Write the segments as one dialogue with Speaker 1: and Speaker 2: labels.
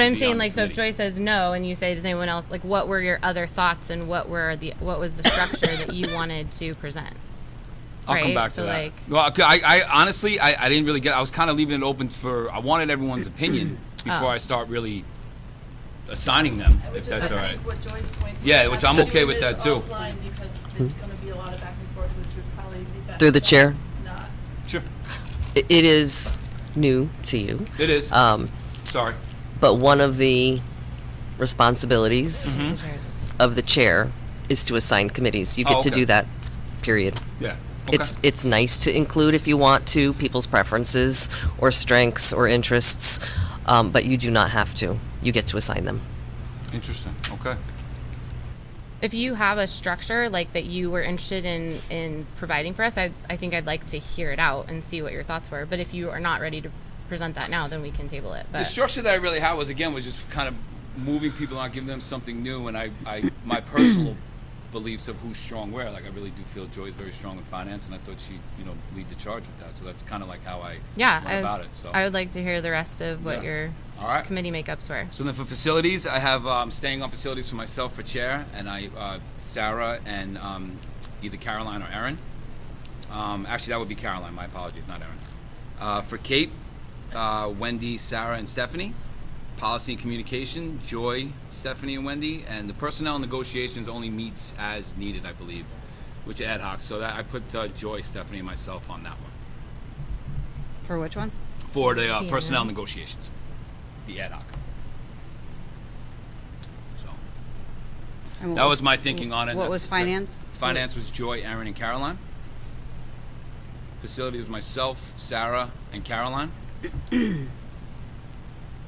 Speaker 1: But I'm saying,
Speaker 2: the
Speaker 1: like, so if
Speaker 2: committee.
Speaker 1: Joy says no, and you say, does anyone else like? What were your other thoughts, and what were the what was the structure that you wanted to present?
Speaker 2: I'll come
Speaker 1: right?
Speaker 2: back
Speaker 1: So,
Speaker 2: to
Speaker 1: like-
Speaker 2: that. Well, I, I honestly, I, I didn't really get. I was kind of leaving it open for. I wanted everyone's opinion
Speaker 1: Oh.
Speaker 2: before I start really assigning them,
Speaker 3: I would
Speaker 2: if
Speaker 3: just-
Speaker 2: that's all
Speaker 3: I
Speaker 2: right.
Speaker 3: think what Joy's point was
Speaker 2: Yeah, which
Speaker 3: have
Speaker 2: I'm
Speaker 3: to do
Speaker 2: okay with that,
Speaker 3: this
Speaker 2: too.
Speaker 3: offline because it's gonna be a lot of back and forth, which would probably be better.
Speaker 4: Through the chair.
Speaker 3: Not.
Speaker 2: Sure,
Speaker 4: I- It is new to you,
Speaker 2: it is.
Speaker 4: um,
Speaker 2: Sorry.
Speaker 4: but one of the responsibilities
Speaker 2: Mm-hmm. Hmm?
Speaker 4: of the chair is to assign committees. You
Speaker 2: Oh,
Speaker 4: get to
Speaker 2: okay.
Speaker 4: do that, period.
Speaker 2: Yeah.
Speaker 4: It's
Speaker 2: Okay.
Speaker 4: it's nice to include if you want to people's preferences or strengths or interests, um, but you do not have to. You get to assign them.
Speaker 2: Interesting. Okay.
Speaker 1: If you have a structure like that you were interested in in providing for us, I I think I'd like to hear it out and see what your thoughts were. But if you are not ready to present that now, then we can table it.
Speaker 2: the
Speaker 1: But
Speaker 2: structure that I really had was again was just kind of moving people on, giving them something new, and I, I my personal beliefs of who's strong where. Like I really do feel Joy's very strong in finance, and I thought she you know lead the charge with that. So that's kind of like how I
Speaker 1: yeah,
Speaker 2: went
Speaker 1: I,
Speaker 2: about it. So
Speaker 1: I would like to hear the rest of what
Speaker 2: Yeah.
Speaker 1: your
Speaker 2: all right.
Speaker 1: committee makeups were.
Speaker 2: So then for facilities, I have um, staying on facilities for myself for chair, and I uh, Sarah and um, either Caroline or Erin. Um, actually, that would be Caroline. My apologies, not Erin. Uh, for Kate, uh, Wendy, Sarah, and Stephanie. Policy and communication, Joy, Stephanie, and Wendy, and the personnel negotiations only meets as needed, I believe, which ad hoc. So that I put uh, Joy, Stephanie, and myself on that one
Speaker 5: For which one?
Speaker 2: for the uh,
Speaker 1: Yeah.
Speaker 2: personnel negotiations, the ad hoc. So.
Speaker 5: And what
Speaker 2: That was my thinking on it.
Speaker 5: What
Speaker 2: That's-
Speaker 5: was finance?
Speaker 2: that- Finance was Joy, Aaron, and Caroline. Facility was myself, Sarah, and Caroline.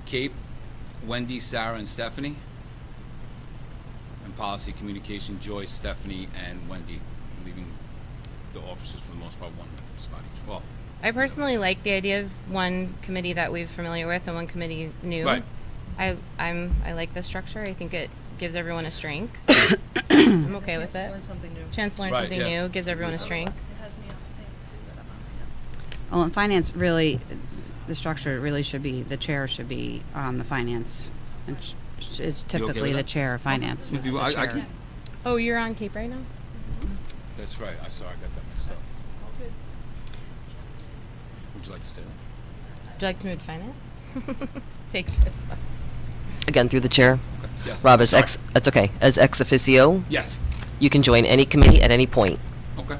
Speaker 2: Cape, Wendy, Sarah, and Stephanie. And policy communication, Joy, Stephanie, and Wendy. I'm leaving the officers for the most part one spot each. Well,
Speaker 1: I personally like the idea of one committee that we're familiar with and one committee new.
Speaker 2: Right.
Speaker 1: I I'm I like the structure. I think it gives everyone a strength. I'm okay with it.
Speaker 6: Learn something new. Oh.
Speaker 1: Chance to learn
Speaker 2: Right,
Speaker 1: something
Speaker 2: yeah.
Speaker 1: new gives everyone a strength.
Speaker 3: It has me on the same too, but I'm on
Speaker 5: Well, in finance, really, the structure really should be, the chair should be on the finance. And sh- sh- It's
Speaker 2: okay with
Speaker 5: typically the
Speaker 2: that?
Speaker 5: chair of finance is
Speaker 2: If you-
Speaker 5: the
Speaker 2: I- I
Speaker 5: chair.
Speaker 2: can-
Speaker 1: Oh, you're on Cape right now?
Speaker 2: that's right. I sorry, I got that mixed up.
Speaker 3: my own. Good.
Speaker 2: Would you like to stay?
Speaker 1: Would you like to move to finance? Take trips.
Speaker 4: Again, through the chair.
Speaker 2: Yes.
Speaker 4: Rob, as
Speaker 2: Sorry.
Speaker 4: ex, that's okay. As ex officio,
Speaker 2: Yes.
Speaker 4: you can join any committee at any point.
Speaker 2: Okay.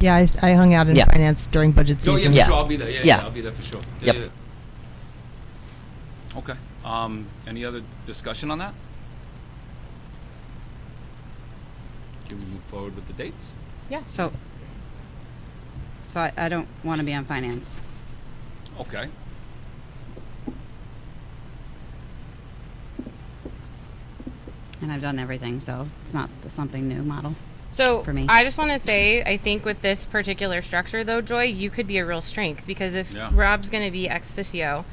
Speaker 6: Yeah, I, s- I hung out in
Speaker 4: Yeah.
Speaker 6: finance during budget
Speaker 2: No, Oh, yeah,
Speaker 6: season.
Speaker 2: for
Speaker 4: Yeah.
Speaker 2: sure. I'll be there. Yeah, yeah,
Speaker 4: Yeah.
Speaker 2: I'll be there for sure. Yeah,
Speaker 4: Yep.
Speaker 2: yeah, yeah. Okay. Um, any other discussion on that? Can we move forward with the dates?
Speaker 5: So, so I, I don't want to be on finance.
Speaker 2: Okay.
Speaker 5: And I've done everything, so it's not the something new model.
Speaker 1: So
Speaker 5: For me.
Speaker 1: I just want to say, I think with this particular structure, though, Joy, you could be a real strength because if
Speaker 2: Yeah.
Speaker 1: Rob's going to be ex officio,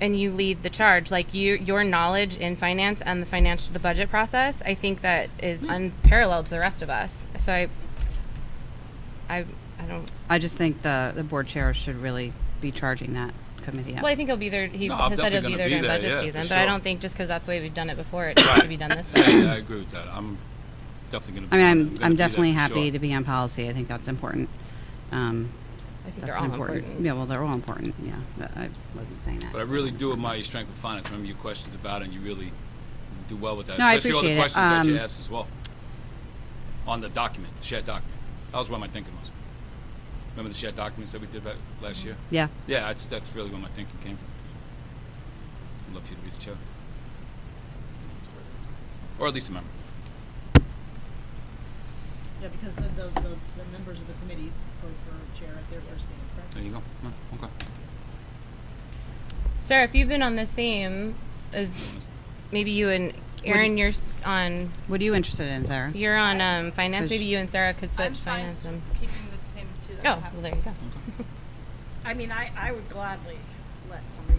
Speaker 1: and you lead the charge, like you, your knowledge in finance and the financial, the budget process, I think that is
Speaker 5: Hmm.
Speaker 1: unparalleled to the rest of us. So I, I, I don't.
Speaker 5: I just think the, the board chair should really be charging that committee up.
Speaker 1: Well, I think he'll be there. He
Speaker 2: No, I'm
Speaker 1: has said he'll be
Speaker 2: definitely gonna
Speaker 1: there
Speaker 2: be
Speaker 1: during
Speaker 2: there,
Speaker 1: budget
Speaker 2: yeah, for
Speaker 1: season, but I
Speaker 2: sure.
Speaker 1: don't think just because that's the way we've done it before, it should be done this way.
Speaker 2: Yeah, yeah, I agree with that. I'm definitely gonna.
Speaker 5: I
Speaker 2: be on
Speaker 5: mean,
Speaker 2: it.
Speaker 5: I'm,
Speaker 2: gonna
Speaker 5: I'm
Speaker 2: be there
Speaker 5: definitely
Speaker 2: for
Speaker 5: happy
Speaker 2: sure.
Speaker 5: to be on policy. I think that's important. Um,
Speaker 1: I think
Speaker 5: that's
Speaker 1: they're
Speaker 5: an
Speaker 1: all important.
Speaker 5: Yeah, well, they're all important. Yeah, but I wasn't saying that.
Speaker 2: But I really do admire your strength with finance. Remember your questions about it, and you really do well with that.
Speaker 5: No, I
Speaker 2: Especially all the
Speaker 5: appreciate it.
Speaker 2: questions that you
Speaker 5: Um,
Speaker 2: asked as well on the document, shared document. That was where my thinking was. Remember the shared documents that we did back last year?
Speaker 5: Yeah.
Speaker 2: Yeah, that's that's really where my thinking came from. I'd love for you to be the chair, or at least a member.
Speaker 6: Yeah, because the, the, the the members of the committee vote for chair at their first meeting, correct?
Speaker 2: There you go. Yeah, Okay.
Speaker 1: Sarah, if you've been on the same as maybe you and Aaron, you're s- on
Speaker 5: What are you interested in, Sarah?
Speaker 1: you're on um, finance.
Speaker 5: Cause
Speaker 1: Maybe
Speaker 5: sh-
Speaker 1: you and Sarah could switch
Speaker 3: I'm fine
Speaker 1: finance. And,
Speaker 3: keeping the same two
Speaker 1: oh,
Speaker 3: that I
Speaker 1: well,
Speaker 3: have.
Speaker 1: there you go.
Speaker 7: I mean, I, I would gladly let somebody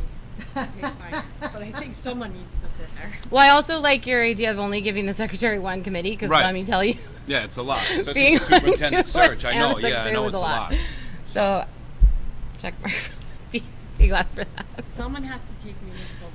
Speaker 7: take finance, but I think someone needs to sit there.
Speaker 1: Well, I also like your idea of only giving the secretary one committee because
Speaker 2: Right.
Speaker 1: let me tell you.
Speaker 2: Yeah, it's a lot, especially
Speaker 1: Being
Speaker 2: with the superintendent
Speaker 1: on
Speaker 2: search. I
Speaker 1: and
Speaker 2: know.
Speaker 1: the
Speaker 2: Yeah, I
Speaker 1: secretary
Speaker 2: know
Speaker 1: was
Speaker 2: it's
Speaker 1: a lot. So, check mark. Be-
Speaker 8: be glad for that.
Speaker 3: Someone has to take municipal